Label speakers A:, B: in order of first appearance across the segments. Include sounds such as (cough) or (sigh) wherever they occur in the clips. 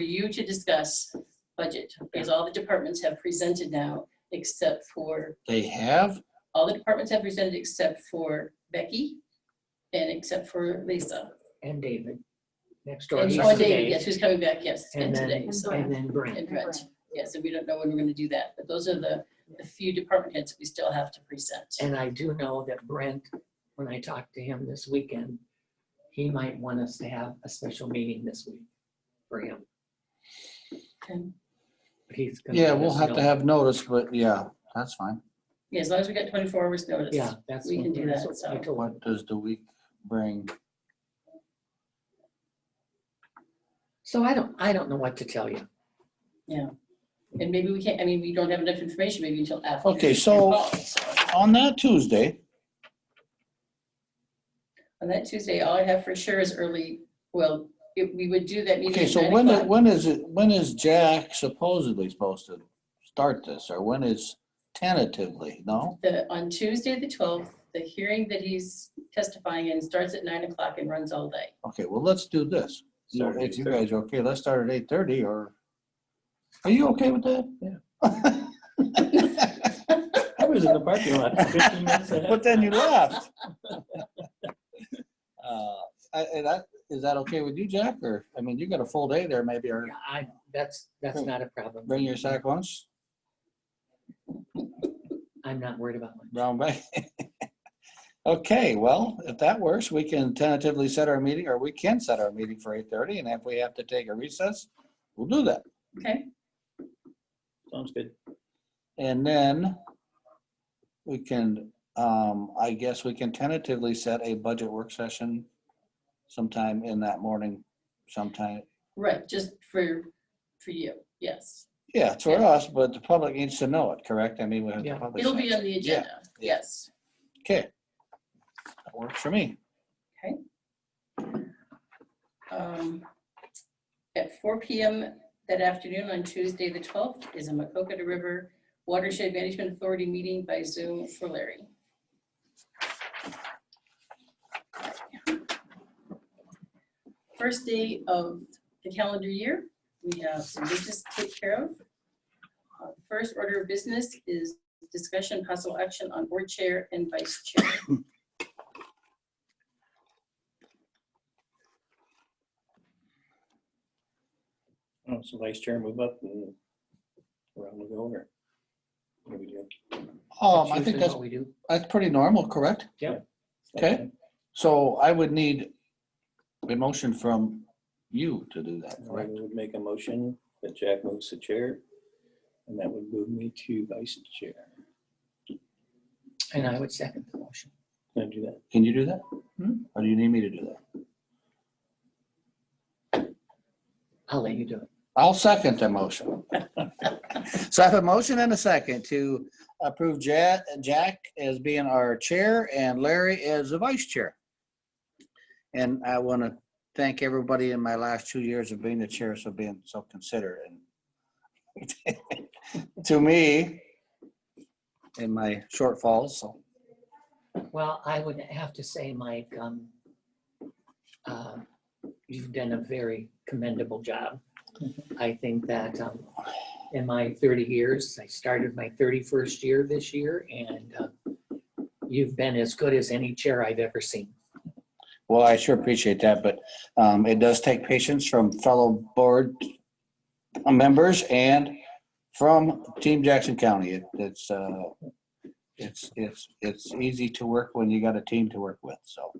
A: for you to discuss budget, because all the departments have presented now, except for,
B: They have?
A: all the departments have presented except for Becky and except for Lisa.
C: and David next door.
A: And
C: he's
A: oh,
C: today,
A: David, yes, who's coming back, yes, and
C: And
A: today,
C: then,
A: so,
C: and then Brent.
A: and Brett. Yes, and we don't know when we're gonna do that, but those are the, the few department heads we still have to present.
C: And I do know that Brent, when I talked to him this weekend, he might want us to have a special meeting this week for him.
A: Okay.
C: But He's. gonna
B: Yeah,
C: let
B: we'll
C: us
B: have to
C: know.
B: have notice, but yeah, that's fine.
A: Yeah, as long as we get twenty-four hours notice.
C: Yeah, that's.
A: We
C: what-
A: can do
C: that's
A: that,
C: what I
A: so.
C: told him.
B: What does the week bring?
C: So I don't, I don't know what to tell you.
A: And maybe we can't, I mean, we don't have enough information maybe until after.
B: Okay,
A: your
B: so-
A: call, so.
B: On that Tuesday,
A: On that Tuesday, all I have for sure is early, well, if we would do that meeting.
B: okay,
A: at
B: so
A: nine
B: when,
A: o'clock.
B: when is it, when is Jack supposedly supposed to start this? Or when is tentatively, no?
A: The, on Tuesday, the twelfth, the hearing that he's testifying in starts at nine o'clock and runs all day.
B: Okay, well, let's do this. So
D: Saturday,
B: If you
D: Thursday.
B: guys are okay, let's start at eight thirty or, are you okay with that? Yeah. (laughs)
D: I was in the parking lot for 15 minutes. ahead.
B: But then you left. (laughs) Uh, I- and that- Is that okay with you, Jack? Or, I mean, you got a full day there maybe, or
C: Yeah, I, that's, that's
B: Cool.
C: not a problem.
B: bring your sack lunch,
C: I'm not worried about lunch.
B: brown bag. (laughs) Okay, well, if that works, we can tentatively set our meeting, or we can set our meeting for eight thirty, and if we have to take a recess, we'll do that.
A: Okay,
D: Sounds good.
B: And then we can, um, I guess we can tentatively set a budget work session sometime in that morning, sometime.
A: right, just for, for you, yes.
B: Yeah, it's for us, but the public needs to know it, correct? I mean, we have to
C: Yeah.
B: publish.
A: It'll be on the
B: Yeah,
A: agenda, yes.
B: Okay. That works for me.
A: Um, At four PM that afternoon on Tuesday, the 12th, is a Macocata River Watershed Management Authority meeting by Zoom for Larry. First day of the calendar year, we have some business to take care of. Uh, First order of business is discussion possible action on board chair and vice (laughs) chair.
D: Oh, So vice chair move up and around we go or. what do we do?
B: Um, I
C: usually
B: think that's,
C: what We do.
B: that's pretty normal, correct? Okay. So I would need a motion from you to do that,
D: I
B: correct?
D: would make a motion that Jack moves the chair and that would move me to vice chair.
C: And I would second the motion.
D: Can I do that?
B: Can you do that?
C: Hmm?
B: Or do you need me to do that?
C: I'll let you do it.
B: I'll second the motion. (laughs) So I have a motion and a second to approve Ja- Jack as being our chair and Larry as the vice chair. And I want to thank everybody in my last two years of being the chair for being so considerate. and (laughs) To me, in my shortfalls, so.
C: Well, I would have to say, Mike, um, uh, you've done a very commendable job.
B: Mm-hmm.
C: I think that, um, in my thirty years, I started my thirty-first year this year and, uh, you've been as good as any chair I've ever seen.
B: Well, I sure appreciate that, but um, it does take patience from fellow board members and from Team Jackson County. It- It's, uh, it's, it's, it's easy to work when you got a team to work with, so.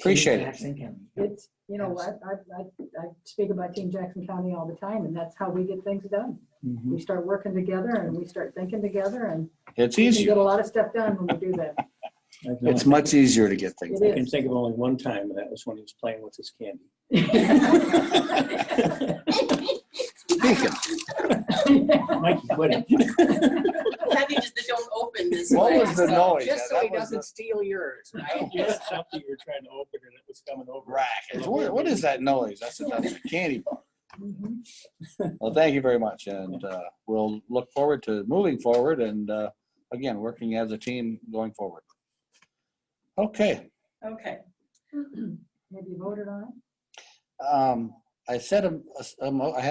B: Appreciate it.
C: Jackson County.
E: It's, you know, I, I, I- I speak about Team Jackson County all the time, and that's how we get things done. We start working together and we start thinking together and
B: It's
E: we can get
B: easier.
E: a lot of stuff done when we do that. (laughs)
D: I can
B: It's
D: only-
B: much easier to get things.
D: I
E: It
D: can
E: is.
D: think of only one time and that was when he was playing with his
B: (laughs)
D: candy.
B: Speaking,
D: Mikey, what?
B: (laughs)
A: Happy just that don't open this
B: What
A: way,
B: was the
A: so-
B: noise?
C: Just so
B: That
C: he
B: was
C: doesn't steal yours, right?
D: Something you were trying to open and it was coming
B: the
D: over.
B: Rack. It's, What what is that noise? I said, that's a candy bar.
E: Mhm.
B: Well, thank you very much, and uh, we'll look forward to moving forward and, uh, again, working as a team going forward. Okay,
A: Okay.
E: Have you voted on it?
B: um, I said, um, a s- a mo- I had